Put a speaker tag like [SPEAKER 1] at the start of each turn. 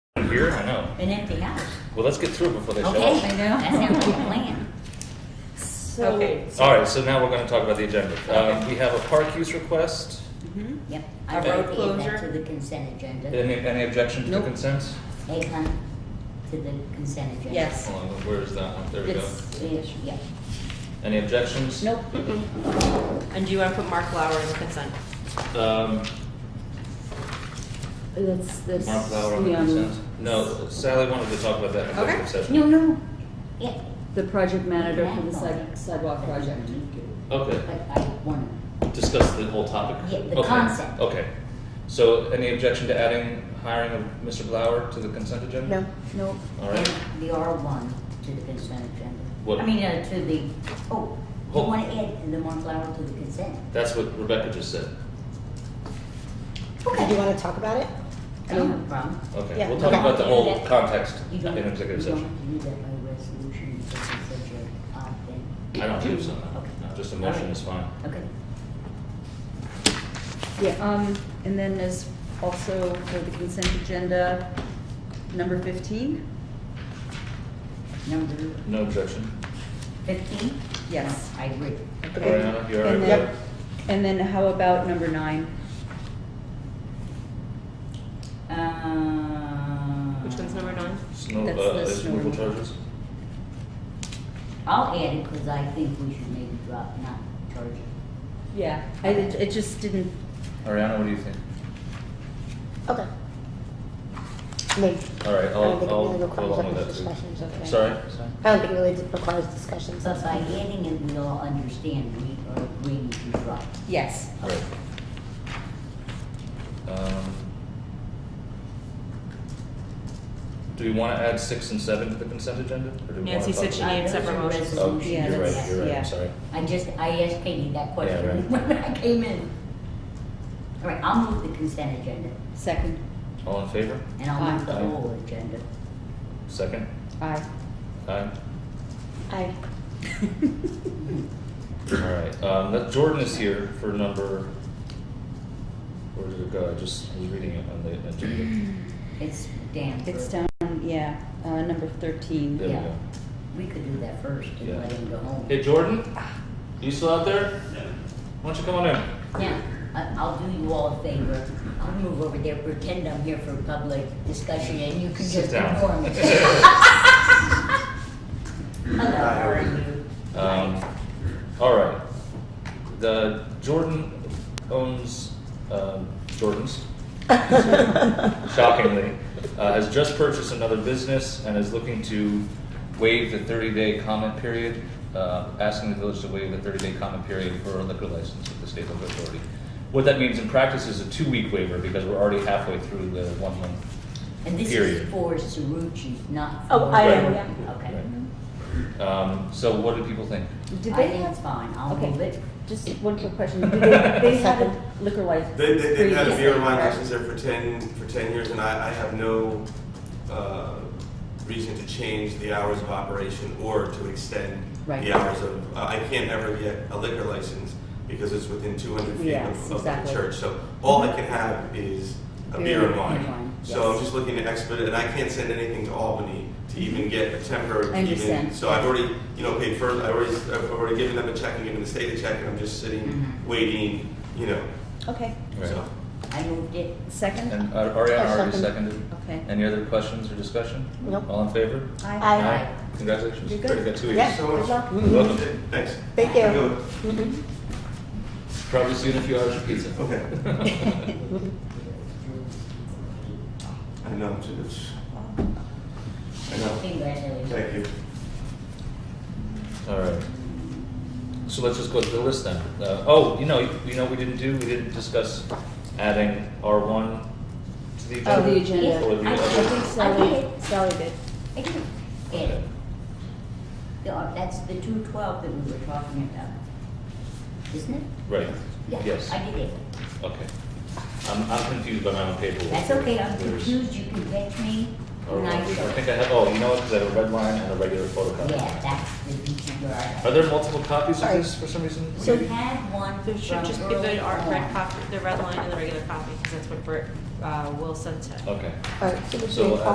[SPEAKER 1] Here, I know.
[SPEAKER 2] an empty house.
[SPEAKER 1] Well, let's get through it before they shut
[SPEAKER 2] Okay,
[SPEAKER 1] off.
[SPEAKER 2] that sounds like a plan.
[SPEAKER 3] So,
[SPEAKER 4] Okay.
[SPEAKER 1] All right, so now we're going to talk about the agenda. Um,
[SPEAKER 4] Okay.
[SPEAKER 1] we have a park use request.
[SPEAKER 4] Mhm.
[SPEAKER 2] Yep.
[SPEAKER 4] A
[SPEAKER 2] I
[SPEAKER 4] road
[SPEAKER 2] would
[SPEAKER 4] closure?
[SPEAKER 2] To the consent agenda.
[SPEAKER 1] Any, any objection to
[SPEAKER 4] Nope.
[SPEAKER 1] consent?
[SPEAKER 2] Hey, hon, to the consent agenda.
[SPEAKER 4] Yes.
[SPEAKER 1] Hold on, where is that one? There we go.
[SPEAKER 4] It's,
[SPEAKER 2] Yeah, yeah.
[SPEAKER 1] Any objections?
[SPEAKER 4] nope. mm-mm.
[SPEAKER 3] and do you want to put Mark Lauer in consent?
[SPEAKER 1] Um,
[SPEAKER 4] That's, that's.
[SPEAKER 1] Mark Lauer on the
[SPEAKER 4] um,
[SPEAKER 1] consent? No, Sally wanted to talk about that in
[SPEAKER 3] Okay.
[SPEAKER 1] executive session.
[SPEAKER 2] No, no, yeah,
[SPEAKER 4] The project manager for the side- sidewalk project.
[SPEAKER 1] Okay,
[SPEAKER 2] but I want,
[SPEAKER 1] discuss the whole topic.
[SPEAKER 2] Yeah, the
[SPEAKER 1] Okay,
[SPEAKER 2] concept.
[SPEAKER 1] Okay. So any objection to adding hiring of Mr. Blauer to the consent agenda?
[SPEAKER 4] Nope.
[SPEAKER 1] All right.
[SPEAKER 2] and the R one to the consent agenda.
[SPEAKER 1] What-
[SPEAKER 2] I mean, uh, to the, oh, you
[SPEAKER 1] Hold-
[SPEAKER 2] wanna add the Mont Flower to the consent?
[SPEAKER 1] That's what Rebecca just said.
[SPEAKER 5] Do you want to talk about it?
[SPEAKER 2] I don't have a problem.
[SPEAKER 1] Okay,
[SPEAKER 5] Yeah,
[SPEAKER 1] we'll talk
[SPEAKER 5] okay.
[SPEAKER 1] about the whole
[SPEAKER 2] Yeah.
[SPEAKER 1] context
[SPEAKER 2] You
[SPEAKER 1] in
[SPEAKER 2] don't, you don't
[SPEAKER 1] executive session.
[SPEAKER 2] have to do that by resolution, because it's such a, odd thing.
[SPEAKER 1] I don't believe so,
[SPEAKER 2] Okay.
[SPEAKER 1] no. No, just a motion is fine.
[SPEAKER 2] Okay.
[SPEAKER 4] Yeah, um, and then there's also for the consent agenda, number fifteen?
[SPEAKER 2] Number
[SPEAKER 1] No objection.
[SPEAKER 2] fifteen?
[SPEAKER 4] Yes.
[SPEAKER 2] I agree.
[SPEAKER 4] Okay.
[SPEAKER 1] Ariana, you're all right
[SPEAKER 4] And
[SPEAKER 1] with
[SPEAKER 4] then-
[SPEAKER 1] that?
[SPEAKER 4] And then how about number nine?
[SPEAKER 2] Uh,
[SPEAKER 3] Which one's number nine?
[SPEAKER 1] Snow,
[SPEAKER 4] That's
[SPEAKER 1] uh,
[SPEAKER 4] the
[SPEAKER 1] is
[SPEAKER 4] snow
[SPEAKER 1] removal
[SPEAKER 4] removal.
[SPEAKER 1] charges?
[SPEAKER 2] I'll add it, because I think we should maybe drop, not charge it.
[SPEAKER 4] Yeah. I, it it just didn't,
[SPEAKER 1] Ariana, what do you think?
[SPEAKER 5] Okay. Maybe.
[SPEAKER 1] All right,
[SPEAKER 5] I don't
[SPEAKER 1] I'll,
[SPEAKER 5] think it
[SPEAKER 1] I'll
[SPEAKER 5] really
[SPEAKER 1] go along with
[SPEAKER 5] requires
[SPEAKER 1] that too.
[SPEAKER 5] discussions, okay.
[SPEAKER 1] Sorry?
[SPEAKER 5] I don't think it really requires discussions.
[SPEAKER 2] But by adding it, we all understand we are agreeing to drop.
[SPEAKER 4] yes.
[SPEAKER 1] Right. Um, Do we want to add six and seven to the consent agenda? or do we wanna
[SPEAKER 3] Nancy
[SPEAKER 1] talk
[SPEAKER 3] said she
[SPEAKER 1] about-
[SPEAKER 2] Uh,
[SPEAKER 3] needed separate motions.
[SPEAKER 1] Oh,
[SPEAKER 4] Yeah,
[SPEAKER 1] you're right,
[SPEAKER 4] that's-
[SPEAKER 1] you're right,
[SPEAKER 4] yeah.
[SPEAKER 1] I'm sorry.
[SPEAKER 2] I just, I asked Katie that
[SPEAKER 1] Yeah,
[SPEAKER 2] question
[SPEAKER 1] right.
[SPEAKER 2] when I came in. All right, I'll move the consent agenda,
[SPEAKER 4] Second,
[SPEAKER 1] All in favor?
[SPEAKER 2] and I'll move the
[SPEAKER 1] Aye.
[SPEAKER 2] whole agenda.
[SPEAKER 1] Second?
[SPEAKER 4] aye.
[SPEAKER 1] Aye.
[SPEAKER 5] I,
[SPEAKER 1] All right, um, that Jordan is here for number, where did it go? I just was reading it on the agenda.
[SPEAKER 2] Mm-hmm. It's Dan.
[SPEAKER 4] It's
[SPEAKER 2] for-
[SPEAKER 4] down, yeah, uh, number thirteen.
[SPEAKER 1] There we
[SPEAKER 2] Yeah.
[SPEAKER 1] go.
[SPEAKER 2] We could do that first
[SPEAKER 1] Yeah.
[SPEAKER 2] and let him go home.
[SPEAKER 1] Hey, Jordan? You still out there? Why don't you come on in?
[SPEAKER 2] Now, I- I'll do you all a favor. I'll move over there, pretend I'm here for public discussion, and you can
[SPEAKER 1] Sit
[SPEAKER 2] just
[SPEAKER 1] down.
[SPEAKER 2] inform me. Hello, how are you?
[SPEAKER 1] Um, all right. The Jordan owns um, Jordan's. Shockingly, uh, has just purchased another business and is looking to waive the 30-day comment period. Uh, asking the village to waive the 30-day comment period for a liquor license with the state liquor authority. What that means in practice is a two-week waiver because we're already halfway through the one-month.
[SPEAKER 2] And this
[SPEAKER 1] Period.
[SPEAKER 2] is for Sarucci, not for.
[SPEAKER 5] Oh, I
[SPEAKER 1] know,
[SPEAKER 2] Right.
[SPEAKER 5] yeah.
[SPEAKER 2] Okay.
[SPEAKER 1] Um, so, what do people think?
[SPEAKER 4] Did
[SPEAKER 2] I
[SPEAKER 4] they
[SPEAKER 2] think
[SPEAKER 4] have?
[SPEAKER 2] it's fine. I'll
[SPEAKER 4] okay.
[SPEAKER 2] move it.
[SPEAKER 4] Just one quick question. Do they, they had a liquor license?
[SPEAKER 6] They, they, they've had a
[SPEAKER 4] previously,
[SPEAKER 6] beer wine
[SPEAKER 4] correct?
[SPEAKER 6] license there for ten, for ten years, and I, I have no, uh, reason to change the hours of operation or to extend
[SPEAKER 4] Right.
[SPEAKER 6] the hours of, uh, I I can't ever get a liquor license because it's within two hundred feet
[SPEAKER 4] Yes,
[SPEAKER 6] of- of the
[SPEAKER 4] exactly. Mm-hmm.
[SPEAKER 6] church, so all I can have is a beer and wine. So I'm
[SPEAKER 4] yes. Mm-hmm.
[SPEAKER 6] just looking to expedite, and I can't send anything to Albany to even get a temporary,
[SPEAKER 4] I
[SPEAKER 6] even-
[SPEAKER 4] understand.
[SPEAKER 6] So I've already, you know, paid first, I already, I've already given them a check and given the state a check, and I'm just sitting,
[SPEAKER 4] Mm-hmm.
[SPEAKER 2] Mhm.
[SPEAKER 6] waiting, you know,
[SPEAKER 4] Okay,
[SPEAKER 6] so.
[SPEAKER 2] I moved it.
[SPEAKER 4] second?
[SPEAKER 1] And uh, Ariana
[SPEAKER 5] I
[SPEAKER 1] already
[SPEAKER 5] second.
[SPEAKER 1] seconded.
[SPEAKER 4] Okay.
[SPEAKER 1] Any other questions or discussion?
[SPEAKER 5] Nope.
[SPEAKER 1] All in favor?
[SPEAKER 4] Aye.
[SPEAKER 5] Aye.
[SPEAKER 1] Congratulations.
[SPEAKER 4] You're good.
[SPEAKER 1] Already got two weeks.
[SPEAKER 5] yeah,
[SPEAKER 6] so
[SPEAKER 5] good
[SPEAKER 6] much.
[SPEAKER 5] luck.
[SPEAKER 1] You're welcome.
[SPEAKER 6] Thanks.
[SPEAKER 5] Thank you. Mhm.
[SPEAKER 1] Probably see you in a few hours for pizza.
[SPEAKER 6] Okay. I know, it's- it's, I know.
[SPEAKER 2] Congratulations.
[SPEAKER 6] Thank you.
[SPEAKER 1] All right. So let's just go through the list then. Uh, oh, you know, you know, what we didn't do. We didn't discuss adding R one to the agenda.
[SPEAKER 4] Oh, the agenda.
[SPEAKER 1] Or the
[SPEAKER 2] I- I
[SPEAKER 1] other.
[SPEAKER 2] think
[SPEAKER 5] Mm-hmm. Sally, Sally did.
[SPEAKER 2] I did. Ed. The- uh, That's the two twelve that we were talking about, isn't it?
[SPEAKER 1] Right.
[SPEAKER 2] Yeah,
[SPEAKER 1] Yes.
[SPEAKER 2] I did it.
[SPEAKER 1] Okay. I'm, I'm confused by my own paperwork.
[SPEAKER 2] That's okay, I'm
[SPEAKER 1] There's-
[SPEAKER 2] confused, you can catch me
[SPEAKER 1] or-
[SPEAKER 2] when
[SPEAKER 1] I
[SPEAKER 2] I show.
[SPEAKER 1] think I have. Oh, you know what? 'Cause I have a red line and a regular photocopy.
[SPEAKER 2] Yeah, that's the DTR.
[SPEAKER 1] Are there multiple copies of
[SPEAKER 5] Sorry.
[SPEAKER 1] this for some reason?
[SPEAKER 2] So you had one from
[SPEAKER 3] There should just be
[SPEAKER 2] early
[SPEAKER 3] the art- red
[SPEAKER 2] on.
[SPEAKER 3] copy, the red line and the regular copy, because that's what Bert, uh, Will sent to.
[SPEAKER 1] Okay.
[SPEAKER 5] All right, so we
[SPEAKER 1] So,
[SPEAKER 5] did
[SPEAKER 1] uh,